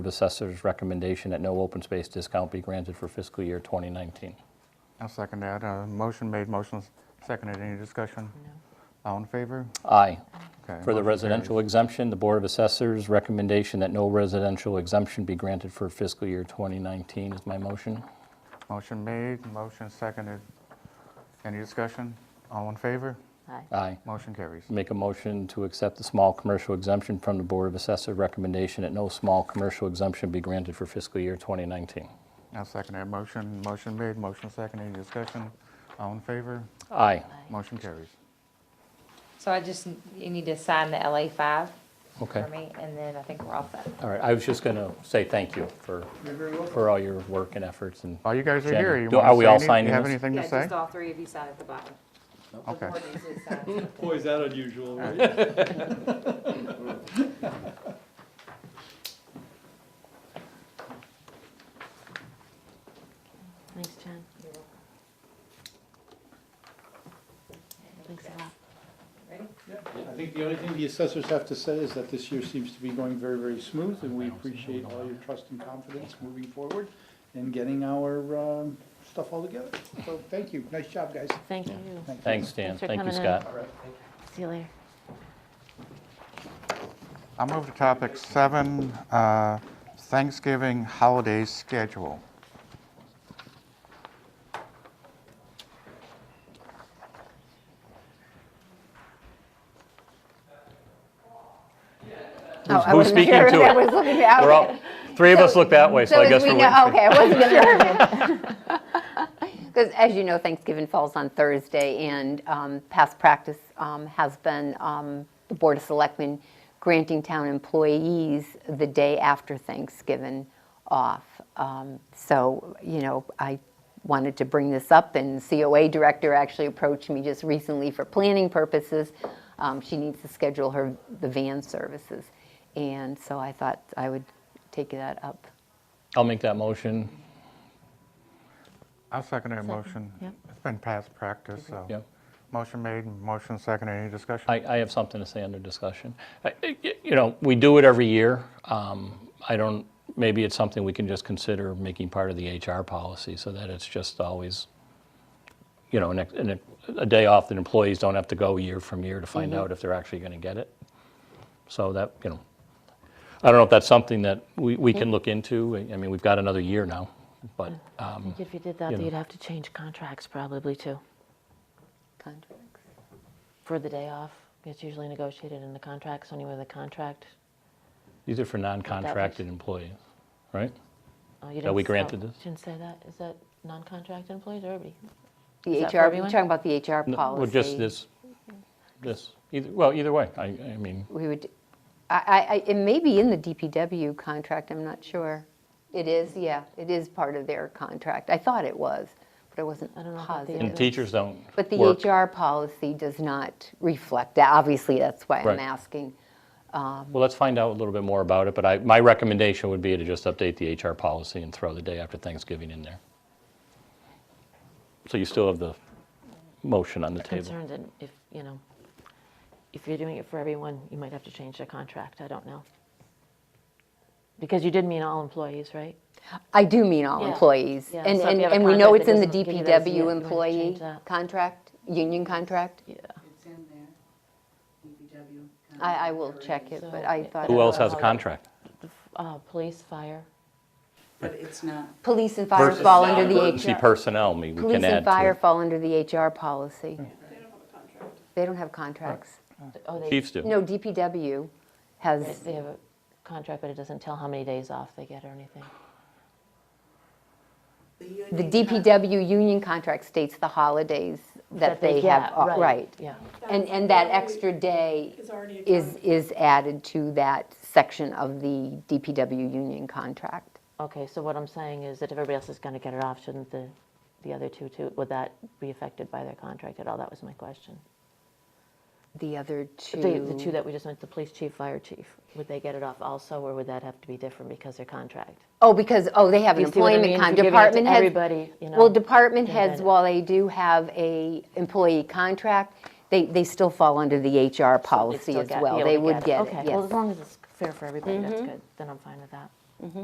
Assessor's recommendation that no open space discount be granted for fiscal year 2019. I'll second that. Uh, Motion made, motion seconded. Any discussion? All in favor? Aye. Okay, For the motion residential exemption, the Board of Assessors' recommendation that no residential exemption be granted for fiscal year 2019 is my motion. carries. Motion made, motion seconded. Any discussion? All in favor? Aye. Aye. Motion carries. Make a motion to accept the small commercial exemption from the Board of Assessors' recommendation that no small commercial exemption be granted for fiscal year 2019. I'll second that motion. Motion made, motion seconded. Any discussion? All in favor? Aye. Motion carries. So I just, you need to sign the LA five Okay. for me, and then I think we're all set. All right, I was just going to say thank you for, for all your work and efforts and, While you guys are Jen, here, you do- want are to we say all any- signing You have this? anything to Yeah, say? just all three of you sign at the bottom. Okay. The board needs to sign. Boy, is that unusual, right? Thanks, John. Thanks a lot. I think the only thing the assessors have to say is that this year seems to be going very, very smooth, and we appreciate all your trust and confidence moving forward and getting our um, stuff all together. So, thank you. Nice job, guys. Thank you. thanks, Dan. Thanks for Thank you, coming in. Scott. See you later. I'll move to topic seven, uh, Thanksgiving holiday schedule. Oh, I who's wasn't speaking sure if to that it? was looking at- We're okay. all, three of us look that way, so I as guess we we're know- waiting. Okay, I wasn't sure. Because as you know, Thanksgiving falls on Thursday, and um, past practice um, has been um, the Board of Selectmen granting town employees the day after Thanksgiving off. Um, So, you know, I wanted to bring this up, and COA Director actually approached me just recently for planning purposes. Um, She needs to schedule her, the van services, and so I thought I would take that up. I'll make that motion. I'll second that motion. yep. It's been past practice, so. Yep. Motion made, motion seconded. Any discussion? I, I have something to say under discussion. I- I- You know, we do it every year. Um, I don't, maybe it's something we can just consider making part of the HR policy so that it's just always, you know, an ex- an ex- a day off that employees don't have to go year from year to Mm-hmm. find out if they're actually going to get it. So that, you know, I don't know if that's something that we, we Mm-hmm. can look into. I I mean, we've got another year now, but, Mm. I think Mm-hmm. if you did that, you though, know. you'd have to change contracts probably too, Contracts? for the day off. It's usually negotiated in the contract, so anyway, the contract. These are for non-contracted employees, right? oh, That you didn't we s- oh, granted this? Didn't say that. Is that non-contracted employees or everybody? The Is that for HR, you're everyone? talking about the HR No, policy? Well, just this, this, either, well, either way, I, I mean, We would, I- I, I, it may be in the DPW contract, I'm not sure. It is, yeah, it is part of their contract. I thought it was, but I wasn't I don't know about the positive. and teachers don't But the work. HR policy does not reflect that. Obviously, that's why Right. I'm asking. Well, let's find out a little bit more about it, but I, my recommendation would be to just update the HR policy and throw the day after Thanksgiving in there. So you still have the motion on the table. Concerned that if, you know, if you're doing it for everyone, you might have to change the contract. I don't know. Because you did mean all employees, right? I do mean all Yeah. employees. Yeah, And, so if and you have a and we know contract it's in the that doesn't give you those yet, you DPW wanna change employee that. contract, union contract. Yeah. It's in there, DPW. I, I will check it, but So I it- thought. Who it else was- has a contract? Uh, Police, fire. But it's not, Police and fire Versus fall under the HR. Emergency personnel, we we Police can and add fire to fall under the HR policy. They don't have a contract. Oh, it. they- Chiefs do. They don't have contracts. No, DPW They- has, They have a contract, but it doesn't tell how many days off they get or anything. the union. the DPW union contract states the holidays that they have, get, uh, right. Yeah. And, and that extra day is, is added to that section of the DPW union contract. Okay, so what I'm saying is that if everybody else is going to get it off, shouldn't the, the other two, too, would that be affected by their contract at all? That was my question. The other two. The, the two that we just went, the police chief, fire chief, would they get it off also, or would that have to be different because their contract? Oh, because, oh, they have an You see what I employment mean? con, If you're giving it to department heads. everybody, you know, Well, department then heads, that- while they do have a employee contract, they, they still fall under the HR They'd policy still as get- be well. able They to would get it, Okay, well, as yes. Mm-hmm. long as it's fair for everybody, that's good, then I'm fine with that.